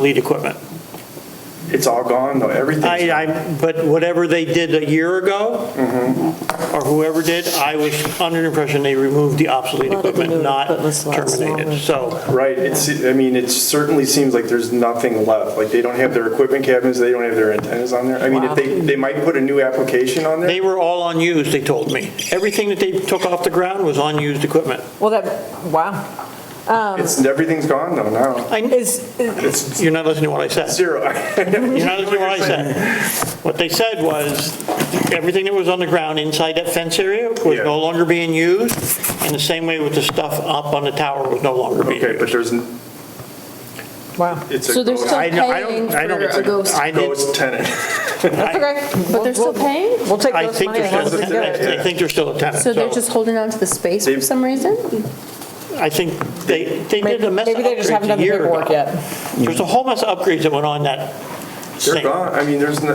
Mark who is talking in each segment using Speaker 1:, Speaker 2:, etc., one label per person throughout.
Speaker 1: lead equipment.
Speaker 2: It's all gone, though,
Speaker 1: I,
Speaker 2: everything.
Speaker 1: I, but whatever they did a year ago,
Speaker 2: Mm-hmm.
Speaker 1: or whoever did, I was under the impression they removed the obsolete
Speaker 3: A lot of the
Speaker 1: equipment,
Speaker 3: new
Speaker 1: not
Speaker 3: equipment's a lot
Speaker 1: terminated.
Speaker 3: smaller.
Speaker 1: So,
Speaker 2: Right, it's, I mean, it certainly seems like there's nothing left. Like, they don't have their equipment cabinets, they don't have their antennas on there. I mean, if they, they might put a new application on there.
Speaker 1: they were all unused, they told me. Everything that they took off the ground was unused equipment.
Speaker 3: Well, that, wow.
Speaker 2: It's, everything's gone, though, now.
Speaker 1: I,
Speaker 3: Is,
Speaker 2: It's
Speaker 1: you're not listening to what I said.
Speaker 2: zero.
Speaker 1: You're not listening to what I said. What they said was, everything that was on the ground inside that fence area was
Speaker 2: Yeah.
Speaker 1: no longer being used, and the same way with the stuff up on the tower was no longer being
Speaker 2: Okay,
Speaker 1: used.
Speaker 2: but there's,
Speaker 3: wow.
Speaker 2: it's a.
Speaker 4: So they're still
Speaker 1: I know- I don't-
Speaker 4: paying
Speaker 1: I don't-
Speaker 4: for a ghost.
Speaker 1: I did-
Speaker 2: Ghost tenant.
Speaker 4: That's okay, but they're still paying?
Speaker 3: We'll take
Speaker 1: I
Speaker 3: those
Speaker 1: think
Speaker 3: money
Speaker 1: they're
Speaker 3: and hold
Speaker 1: still,
Speaker 3: it
Speaker 2: those money.
Speaker 3: together.
Speaker 1: I think they're still a tenant.
Speaker 4: So they're just holding on to the space for
Speaker 2: They've-
Speaker 4: some reason?
Speaker 1: I think they, they did a mess of
Speaker 3: Maybe they just
Speaker 1: upgrades
Speaker 3: haven't done
Speaker 1: a
Speaker 3: the
Speaker 1: year
Speaker 3: paperwork
Speaker 1: ago.
Speaker 3: yet.
Speaker 1: There's a whole mess of upgrades that went on that
Speaker 2: They're
Speaker 1: thing.
Speaker 2: gone. I mean, there's no,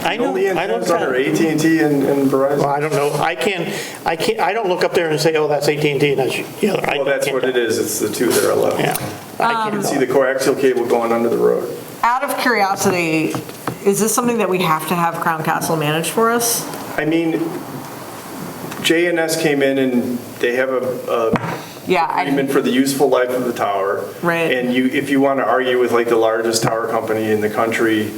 Speaker 1: I know,
Speaker 2: only
Speaker 1: I don't
Speaker 2: antennas on are
Speaker 1: tell.
Speaker 2: at and t and and Verizon.
Speaker 1: I don't know, I can't, I can't, I don't look up there and say, oh, that's AT&T and that's the other. I
Speaker 2: Well, that's
Speaker 1: can't
Speaker 2: what
Speaker 1: do
Speaker 2: it is, it's the two that
Speaker 1: that.
Speaker 2: are left.
Speaker 1: Yeah. I
Speaker 2: You
Speaker 1: can't
Speaker 2: can see the coaxial cable going under the road.
Speaker 3: Out of curiosity, is this something that we have to have Crown Castle manage for us?
Speaker 2: I mean, JNS came in and they have a a
Speaker 3: Yeah, I,
Speaker 2: agreement for the useful life of the tower.
Speaker 3: Right.
Speaker 2: And you, if you want to argue with like the largest tower company in the country,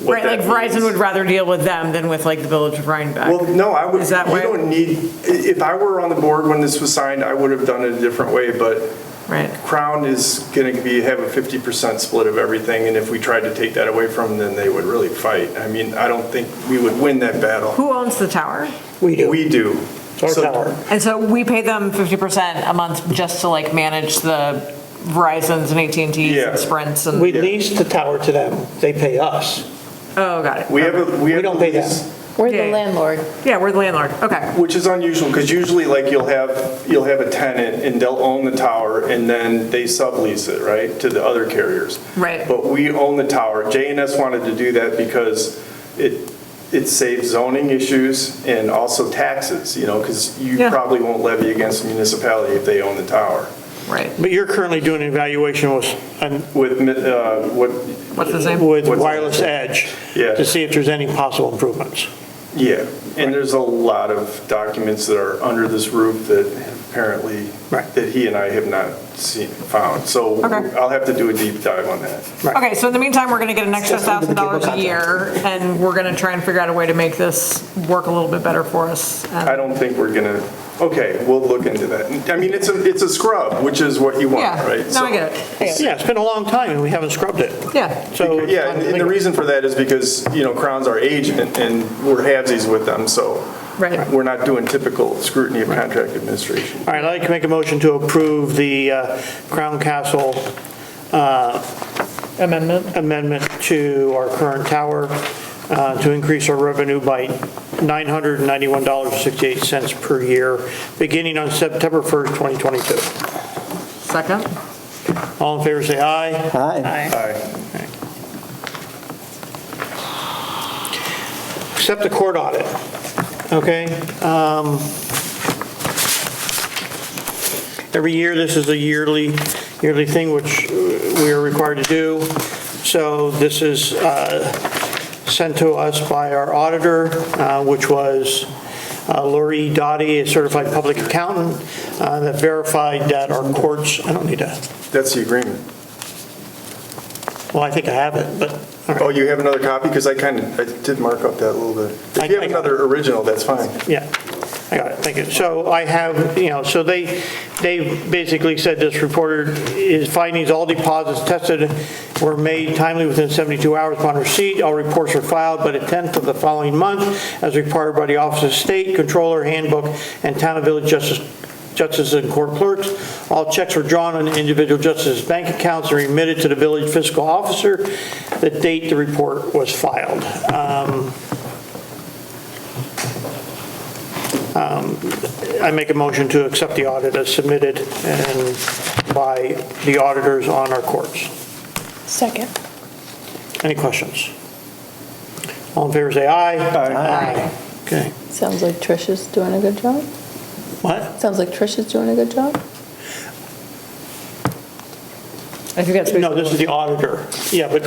Speaker 2: what
Speaker 3: right,
Speaker 2: that
Speaker 3: like Verizon
Speaker 2: means-
Speaker 3: would rather deal with them than with like the Village of Rhinebeck.
Speaker 2: Well, no, I would,
Speaker 3: Is that
Speaker 2: we
Speaker 3: why-
Speaker 2: don't need, i- if I were on the board when this was signed, I would have done it a different way, but
Speaker 3: Right,
Speaker 2: Crown is going to be, have a 50% split of everything, and if we tried to take that away from them, then they would really fight. I mean, I don't think we would win that battle.
Speaker 3: who owns the tower?
Speaker 1: We do,
Speaker 2: We do.
Speaker 1: it's our
Speaker 2: So-
Speaker 1: tower.
Speaker 3: And so we pay them 50% a month just to like manage the Verizons and at and T's
Speaker 2: Yeah.
Speaker 3: and Sprints and,
Speaker 1: We lease the tower to them, they pay us.
Speaker 3: oh, got it.
Speaker 2: We have a, we
Speaker 1: We
Speaker 2: have a
Speaker 1: don't pay them.
Speaker 2: lease,
Speaker 4: We're
Speaker 3: Yeah.
Speaker 4: the landlord.
Speaker 3: Yeah, we're the landlord, okay.
Speaker 2: which is unusual, because usually like you'll have, you'll have a tenant and they'll own the tower and then they sublease it, right, to the other carriers.
Speaker 3: Right.
Speaker 2: But we own the tower. JNS wanted to do that because it, it saves zoning issues and also taxes, you know, because you
Speaker 3: Yeah.
Speaker 2: probably won't levy against the municipality if they own the tower.
Speaker 3: Right.
Speaker 1: But you're currently doing an evaluation with, an-
Speaker 2: With, mi- uh, what,
Speaker 3: What's his name?
Speaker 1: with
Speaker 2: What's-
Speaker 1: Wireless Edge
Speaker 2: Yeah.
Speaker 1: to see if there's any possible improvements.
Speaker 2: yeah, and there's a lot of documents that are under this roof that apparently,
Speaker 1: Right.
Speaker 2: that he and I have not seen, found. So
Speaker 3: Okay.
Speaker 2: I'll have to do a deep dive on that.
Speaker 1: Right.
Speaker 3: Okay, so in the meantime, we're gonna get an extra
Speaker 1: Just under the cable
Speaker 3: thousand dollars a
Speaker 1: contract.
Speaker 3: year, and we're gonna try and figure out a way to make this work a little bit better for us. And-
Speaker 2: I don't think we're gonna, okay, we'll look into that. I mean, it's a, it's a scrub, which is what you want,
Speaker 3: Yeah,
Speaker 2: right?
Speaker 3: no,
Speaker 2: So-
Speaker 3: I get it.
Speaker 1: Yeah, it's been a long time and we haven't scrubbed it.
Speaker 3: Yeah,
Speaker 1: So. it's
Speaker 2: Yeah,
Speaker 1: time
Speaker 2: and
Speaker 1: to think
Speaker 2: and the
Speaker 1: about it.
Speaker 2: reason for that is because, you know, Crown's our agent, and we're halvesies with them, so
Speaker 3: Right.
Speaker 2: we're not doing typical scrutiny of contract administration.
Speaker 1: All right, I'd like to make a motion to approve the uh, Crown Castle uh,
Speaker 3: amendment.
Speaker 1: amendment to our current tower uh, to increase our revenue by $991.68 per year, beginning on September 1st, 2022.
Speaker 3: Second?
Speaker 1: All in favor, say aye.
Speaker 5: Hi.
Speaker 1: Accept the court audit, okay? Um, Every year, this is a yearly, yearly thing which uh, we are required to do. So this is uh, sent to us by our auditor, uh, which was uh, Lori Dottie, a certified public accountant, uh, that verified that our courts, I don't need to,
Speaker 2: That's the agreement.
Speaker 1: well, I think I have it, but, all right,
Speaker 2: Oh, you have another copy? Because I kind of, I did mark up that a little bit. If you
Speaker 1: I- I-
Speaker 2: have another original, that's fine.
Speaker 1: yeah. I got it, thank you. So I have, you know, so they, they basically said this reporter is findings, all deposits tested were made timely within 72 hours upon receipt. All reports are filed by the 10th of the following month as required by the Office of State Controller Handbook and Town and Village Justice justices and court clerks. All checks were drawn on individual justices' bank accounts and remitted to the village fiscal officer. The date the report was filed. Um, um, I make a motion to accept the audit as submitted and by the auditors on our courts.
Speaker 4: Second.
Speaker 1: Any questions? All in favor, say aye.
Speaker 3: Aye.
Speaker 1: Okay.
Speaker 4: Sounds like Trisha's doing a good job.
Speaker 1: What?
Speaker 4: Sounds like Trisha's doing a good job.
Speaker 5: I think that's.
Speaker 1: No, this is the auditor. Yeah, but